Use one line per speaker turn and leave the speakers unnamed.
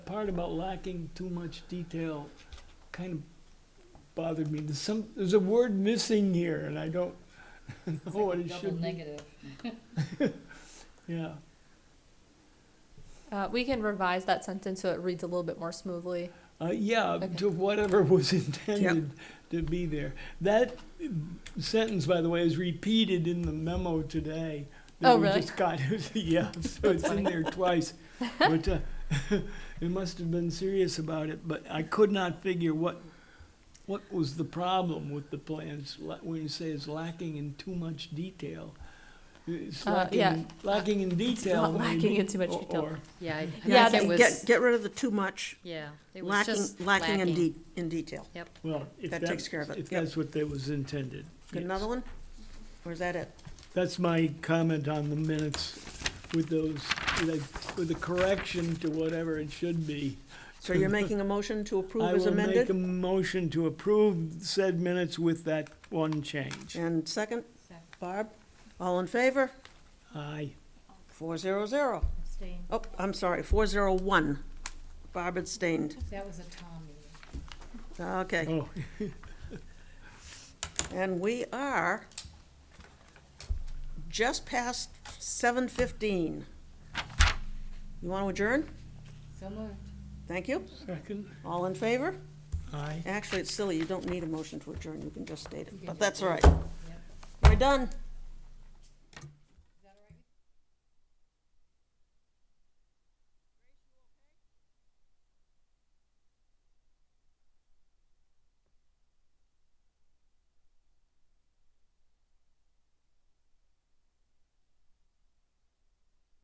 part about lacking too much detail kind of bothered me. There's some, there's a word missing here and I don't
It's
know
like
what
a
it
double
should be.
negative.
Yeah,
Uh, we can revise that sentence so it reads a little bit more smoothly.
uh, yeah,
Okay.
to whatever was intended to be there. That sentence, by the way, is repeated in the memo today. that
Oh,
we
really?
just got. Yeah, so it's in there twice. But uh, it must have been serious about it, but I could not figure what, what was the problem with the plans, la- when you say it's lacking in too much detail. It's
Uh,
lacking,
yeah.
in- lacking in detail.
not lacking
maybe,
in too much
or-
detail.
or-
Yeah, I, I
Yeah,
think it
they-
Get,
was,
get rid of the too much,
yeah, it was
lacking,
just
lacking in
lacking.
de, in detail.
Well, if
That
that-
takes care of it,
If
yep.
that's what that was intended.
Got
yes.
another one? Or is that it?
That's my comment on the minutes with those, with a- with a correction to whatever it should be.
So you're making a motion to approve as
I will make a
amended?
motion to approve said minutes with that one change.
And second,
Second.
Barb, all in favor?
Aye.
Four zero zero.
Abstain.
Oh, I'm sorry, four zero one. Barb abstained.
That was a Tom meeting.
Okay,
Oh,
and we are just past seven fifteen. You want to adjourn?
So moved.
Thank you.
second?
All in favor?
Aye.
Actually, it's silly, you don't need a motion to adjourn, you can just state
You
it,
can
but
just
that's
do
all
it.
right. We're done.